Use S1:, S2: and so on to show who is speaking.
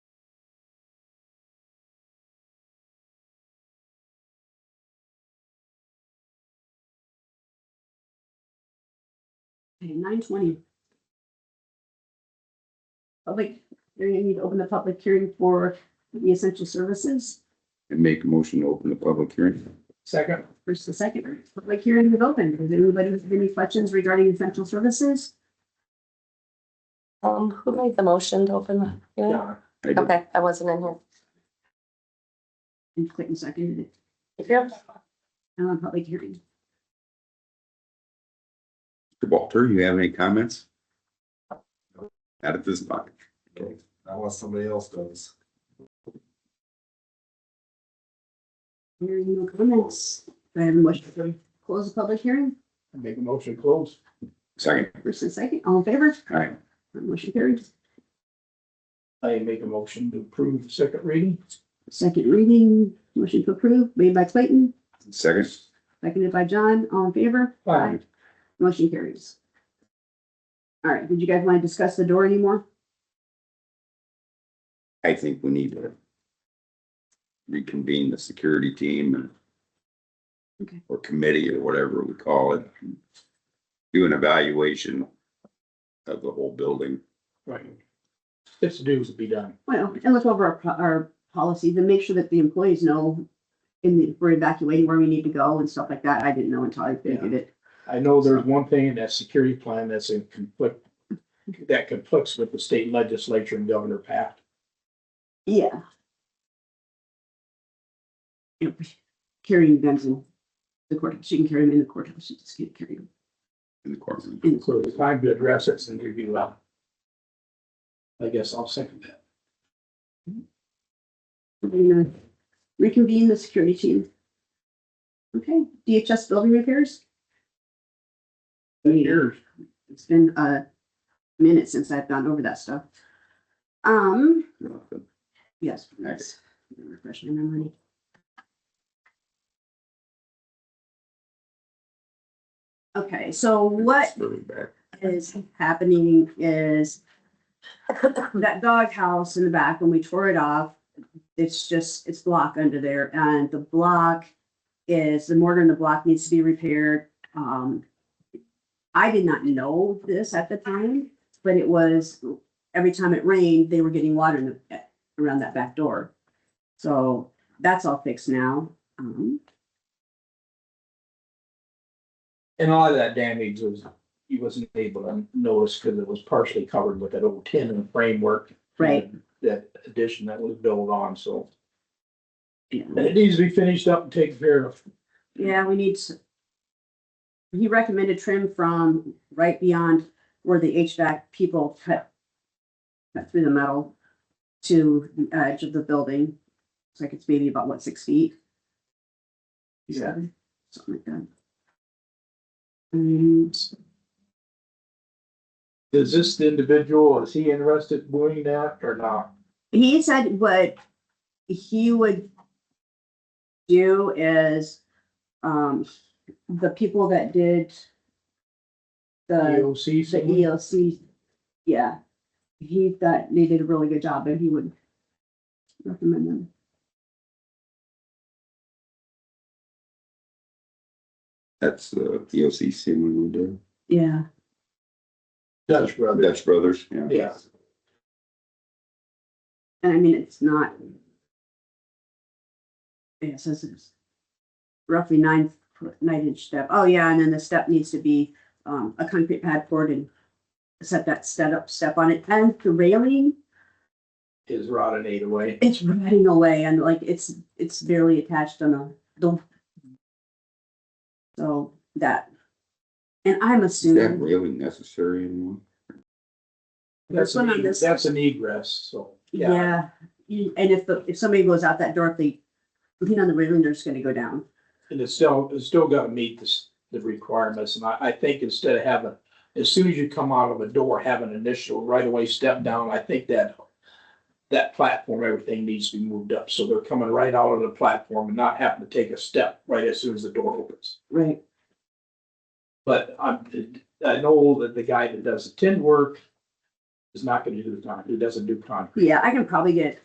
S1: Okay, nine twenty. Public, hearing. I need to open the public hearing for the essential services.
S2: and make a motion to open the public hearing.
S3: Second.
S1: First and second, public hearing is open. Does anybody have any questions regarding essential services?
S4: Um, who made the motion to open the hearing?
S3: John.
S2: I did.
S4: Okay, I wasn't in here.
S1: And Clayton seconded it. Uh, public hearing.
S2: Walter, you have any comments? Not at this time.
S3: Unless somebody else does.
S1: Hearing no comments. Do I have a motion to close the public hearing?
S3: Make a motion to close.
S2: Second,
S1: First and second, all in favor?
S2: all right,
S1: Motion carried.
S3: I make a motion to approve the second reading.
S1: Second reading, motion to approve, made by Clayton,
S2: second,
S1: seconded by John, all in favor?
S3: Aye.
S1: Motion carries. All right, did you guys want to discuss the door anymore?
S2: I think we need to reconvene the security team and
S1: Okay.
S2: or committee or whatever we call it. Do an evaluation of the whole building.
S3: Right. It's dues to be done.
S1: Well, and look over our, po- our policies and make sure that the employees know in the, we're evacuating where we need to go and stuff like that. I didn't know until I figured it.
S3: I know there's one thing in that security plan that's in conflict, that conflicts with the state legislature and Governor Pat.
S1: Yeah. Yep, carrying guns in the courthouse. She can carry them in the courthouse. She just can't carry them
S2: in the courtroom.
S1: in the
S3: So it's time to address it and review that. I guess I'll second that.
S1: We're gonna reconvene the security team. Okay, DHS building repairs.
S3: Yours.
S1: It's been a minute since I've gone over that stuff. Um, yes, please. Refresh my memory. Okay, so what is happening is that doghouse in the back, when we tore it off, it's just, it's block under there, and the block is, the mortar in the block needs to be repaired. Um, I did not know this at the time, but it was, every time it rained, they were getting water in the, around that back door. So that's all fixed now. Um,
S3: And all of that damage was, he wasn't able to notice because it was partially covered with that old tin and framework.
S1: Right.
S3: That addition that was built on, so.
S1: Yeah.
S3: And it needs to be finished up and taken care of.
S1: Yeah, we need to. He recommended trim from right beyond where the HVAC people cut. Cut through the metal to the edge of the building. So like it's maybe about what, six feet? Seven, Something like that. And
S3: Is this the individual, is he interested in doing that or not?
S1: he said what he would do is, um, the people that did. The.
S3: EOC?
S1: Uh, the E
S3: someone?
S1: ELC, yeah. He thought they did a really good job and he would recommend them.
S2: That's the EOCC one we did.
S1: Yeah,
S3: Dutch brother.
S2: Dutch Brothers, yeah.
S3: Yeah.
S1: and I mean, it's not. Yeah, it says it's roughly nine foot, nine inch step. Oh, yeah, and then the step needs to be um a concrete pad poured and set that step up step on it and the railing,
S3: Is rotted eight away.
S1: it's running away and like it's it's barely attached on a the. So that. And I'm
S2: Is that
S1: assuming.
S2: really necessary anymore?
S3: That's
S1: one
S3: an,
S1: on
S3: e-
S1: this-
S3: that's an egress, so, yeah.
S1: Yeah, You- and if the, if somebody goes out that door, if they lean on the railing, they're just gonna go down.
S3: And it's still, it's still gotta meet this, the requirements, and I, I think instead of having, as soon as you come out of a door, have an initial right away step down, I think that. That platform, everything needs to be moved up, so they're coming right out of the platform and not having to take a step right as soon as the door opens.
S1: Right.
S3: But I'm, I know that the guy that does the tin work. Is not gonna do the concrete, he doesn't do concrete.
S1: Yeah, I can probably get